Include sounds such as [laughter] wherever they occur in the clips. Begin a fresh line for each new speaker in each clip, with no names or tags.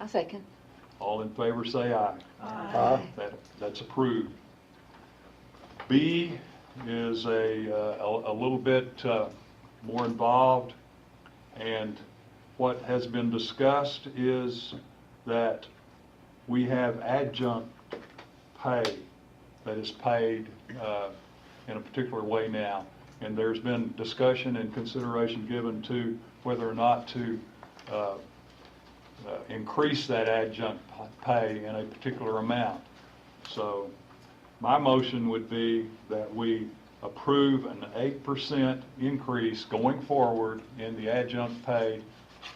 I second.
All in favor, say aye.
Aye.
That, that's approved. B is a, uh, a a little bit uh, more involved, and what has been discussed is that we have adjunct pay that is paid uh, in a particular way now. And there's been discussion and consideration given to whether or not to uh, uh, increase that adjunct p- pay in a particular amount. So my motion would be that we approve an 8% increase going forward in the adjunct pay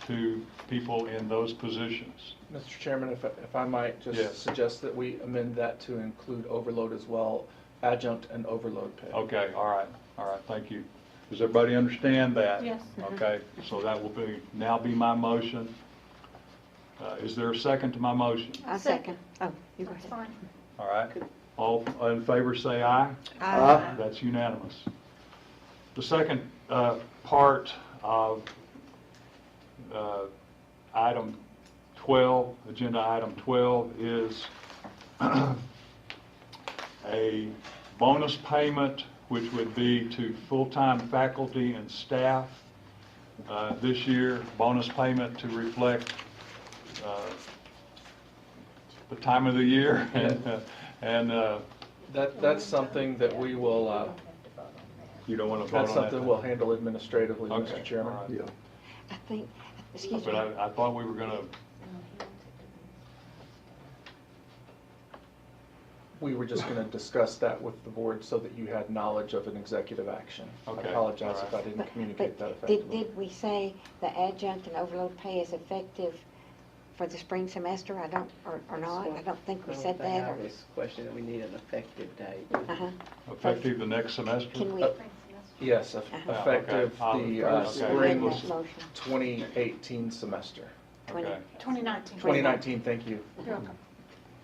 to people in those positions.
Mr. Chairman, if, if I might
Yes.
just suggest that we amend that to include overload as well, adjunct and overload pay.
Okay, all right, all right, thank you. Does everybody understand that?
Yes.
Okay, so that will be, now be my motion. Uh, Is there a second to my motion?
I second. Oh, you go
That's
ahead.
fine.
All right, all in favor, say aye.
Aye.
That's unanimous. The second uh, part of uh, item 12, agenda item 12, is [clears throat] a bonus payment, which would be to full-time faculty and staff uh, this year, bonus payment to reflect uh, the time of the year [laughs] and, uh, and uh,
That, that's something that we will, uh,
you don't want to vote on
that's
that.
something we'll handle administratively,
Okay,
Mr. Chairman.
all right.
Yeah.
I think, excuse me.
But I, I thought we were gonna,
We were just gonna discuss that with the board so that you had knowledge of an executive action. I
Okay,
apologize
all
if I
right.
didn't
But-
communicate that
but
effectively.
Did, did we say the adjunct and overload pay is effective for the spring semester? I don't, or, or not? I don't think we said that,
I
or,
was questioning, we need an effective date.
[laughs] uh-huh.
effective the next
Can
semester?
we,
Yes, eff-
Uh-huh.
Ah, okay.
effective
I'll-
the uh,
okay.
amend
spring
that motion?
2018 semester.
Twenty.
Okay.
2019.
2019, thank you.
You're welcome.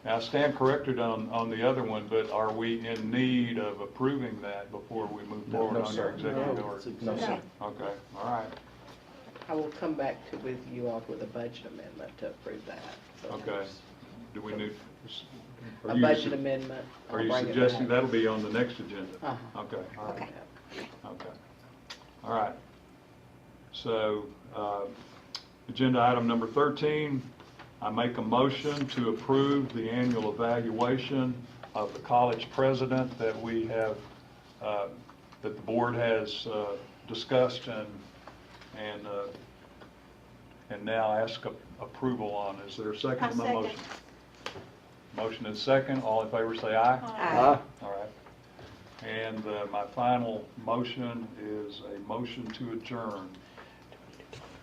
Now, I stand corrected on, on the other one, but are we in need of approving that before we move
No,
forward
no,
on our
sir.
executive
No.
order?
No, sir.
Okay.
Okay, all right,
I will come back to with you all with a budget amendment to approve that. So
okay. Do we need? are
A
you
budget
su-
amendment.
Are
I'll
you
bring it
suggesting
back.
that'll be on the next agenda?
Uh-huh.
Okay, all right,
Okay.
okay. All right. So, uh, agenda item number 13, I make a motion to approve the annual evaluation of the college president that we have, uh, that the board has uh, discussed and, and, uh, and now ask a- approval on. Is there a second
I
to my
second.
motion? Motion and second, all in favor say aye.
Aye.
All right. And uh, my final motion is a motion to adjourn.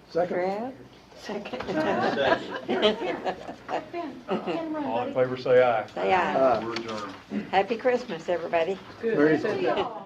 Second.
Brad? Second. [laughs]
Here, here. Ben, Ben, run,
All in
buddy.
favor, say aye.
Say aye.
Aye.
We're adjourned.
Happy Christmas, everybody.
Good.
Very
See y'all.